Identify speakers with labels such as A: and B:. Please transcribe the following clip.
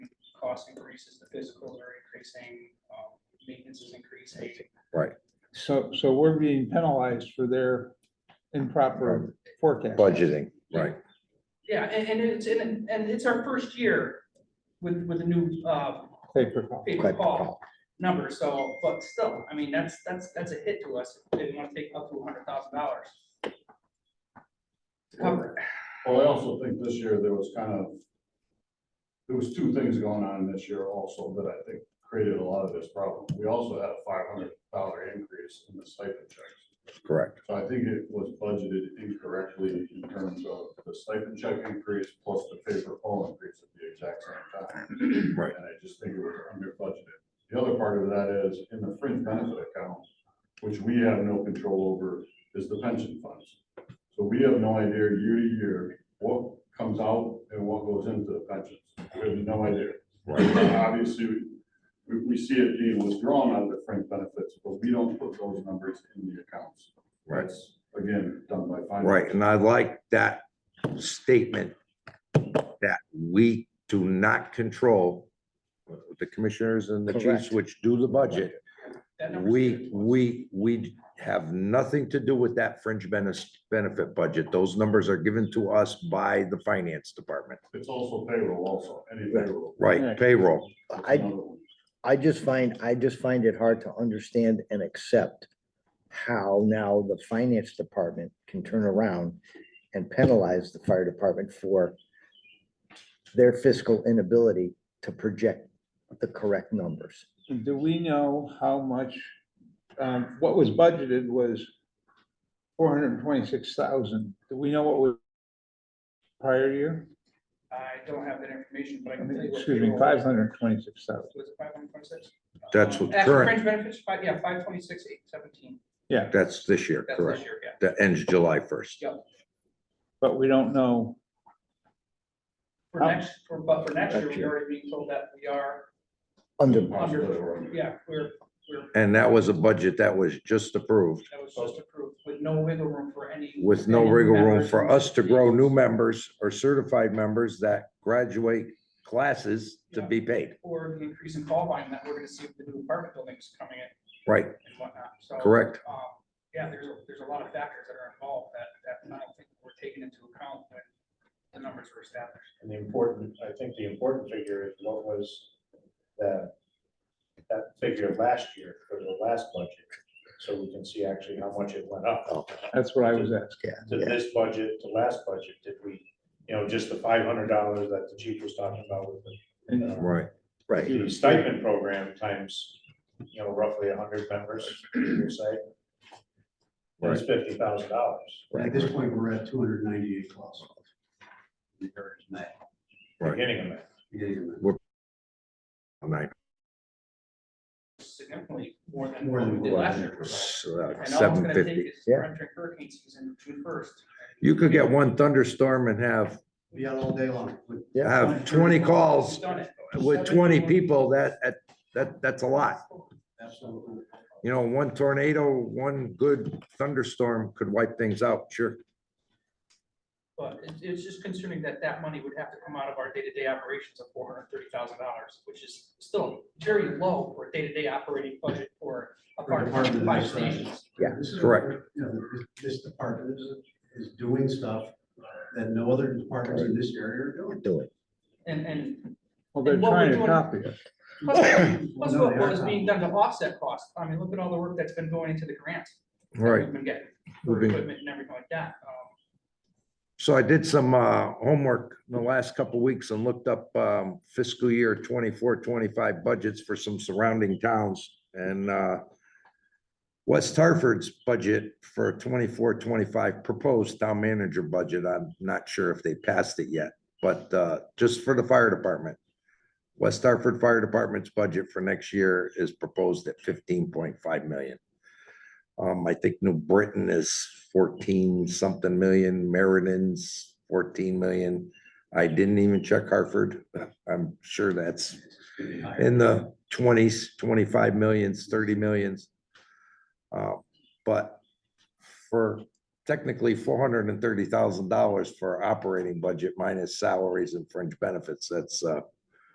A: cost increases, the physicals are increasing, um, maintenance is increasing.
B: So, so we're being penalized for their improper forecast.
C: budgeting, right?
A: Yeah, and, and it's, and, and it's our first year with, with the new, uh,
B: Paper call.
A: paper
C: Right.
A: call number, so, but still, I mean, that's, that's, that's a hit to us, if they wanna take up to hundred thousand dollars. To cover it,
D: Well, I also think this year there was kind of, there was two things going on this year also that I think created a lot of this problem. We also had a five hundred dollar increase in the stipend checks.
C: Correct.
D: So I think it was budgeted incorrectly in terms of the stipend check increase plus the paper poll increase at the exact same time.
C: Right.
D: And I just think it was under budgeted. The other part of that is in the fringe benefit account, which we have no control over, is the pension funds. So we have no idea year to year what comes out and what goes into the pensions. We have no idea. Uh, Obviously, we, we see it being withdrawn out of the fringe benefits, but we don't put those numbers in the accounts.
C: Right.
D: That's, Again, done by finance.
C: Right, and I like that statement that we do not control the commissioners and the chiefs
E: Correct.
C: which do the budget.
A: that number's
C: We, we, we have nothing to do with that fringe benefit, benefit budget. Those numbers are given to us by the finance department.
D: It's also payroll also, any payroll.
C: Right,
B: Right.
C: payroll.
D: That's
E: I-
D: another one.
E: I just find, I just find it hard to understand and accept how now the finance department can turn around and penalize the fire department for their fiscal inability to project the correct numbers.
B: Do we know how much, um, what was budgeted was four hundred and twenty-six thousand. Do we know what was prior year?
A: I don't have that information, but I
B: I
A: can
B: mean,
A: tell you. what
B: Excuse me,
A: payroll
B: five
A: was.
B: hundred and twenty-six thousand.
A: Was it five hundred twenty-six?
C: That's what current-
A: Fringe benefits, five, yeah, five twenty-six, eight seventeen,
C: That's this year,
A: that's this
C: correct?
A: year, yeah.
C: That ends July first.
B: But we don't know,
A: For
B: How-
A: next, for, but for next year,
C: Next
A: we
C: year.
A: already being told that we are,
E: Under,
D: Possibly wrong.
A: yeah, we're, we're,
C: And that was a budget that was just approved
A: that was just approved with no wiggle room for any.
C: with no
A: any
C: wiggle room
A: members.
C: for us to grow new members or certified members that graduate classes to be paid.
A: Or the increase in call volume that we're gonna see with the new apartment buildings coming in
C: Right,
A: and whatnot, so.
C: correct.
A: Um, yeah, there's, a- there's a lot of factors that are involved that, that I don't think were taken into account when the numbers were established.
F: And the important, I think the important figure is what was that, that figure last year for the last budget. So we can see actually how much it went
C: Oh,
F: up.
B: that's what I was asking.
E: yeah,
F: To
E: yeah,
F: this budget, to last budget, did we, you know, just the five hundred dollars that the chief was talking about with
B: And
F: the, uh,
C: Right,
E: right.
F: the stipend program times, you know, roughly hundred members, you say? That's fifty thousand dollars.
G: At
C: right,
G: this point, we're at two hundred ninety-eight calls. May,
C: right.
F: Beginning of that.
G: beginning of May.
C: Nine,
A: Significantly more than
G: More
A: what
G: than
A: we did
G: what we
A: last
G: did.
A: year. And all it's
C: Uh, seven
A: gonna take
C: fifty.
A: is
E: yeah.
A: we're entering hurricane season, June first.
C: You could get one thunderstorm and have,
G: Be out all day long. With-
C: have twenty calls
A: We've done it.
C: with twenty people, that, that, that, that's a lot.
G: Absolutely.
C: You know, one tornado, one good thunderstorm could wipe things out, sure.
A: But it- it's just concerning that that money would have to come out of our day-to-day operations of four hundred and thirty thousand dollars, which is still very low for a day-to-day operating budget for a
G: For a
A: part of
G: department
A: five
G: this size.
A: stations.
E: Yeah,
G: This is-
C: correct.
G: You know, this- this department is, is doing stuff that no other departments in this area are doing.
E: Do it.
A: And, and
B: well, they're
A: And what we're
B: trying to
A: doing-
B: copy us.
A: plus, plus
G: No,
A: what what
G: they are
A: is being
G: not.
A: done to offset costs. I mean, look at all the work that's been going into the grants. that
C: Right.
A: We've been getting for
C: We've been-
A: equipment and everything like that. Um,
C: So I did some uh, homework in the last couple of weeks and looked up um, fiscal year 24, 25 budgets for some surrounding towns. And uh, West Hartford's budget for 24, 25 proposed town manager budget, I'm not sure if they passed it yet, but uh, just for the fire department. West Hartford Fire Department's budget for next year is proposed at 15.5 million. Um, I think New Britain is fourteen something million, Meriden's fourteen million. I didn't even check Hartford. I'm sure that's in the twenties, twenty-five millions, thirty millions. Uh, But for technically four hundred and thirty thousand dollars for operating budget minus salaries and fringe benefits, that's uh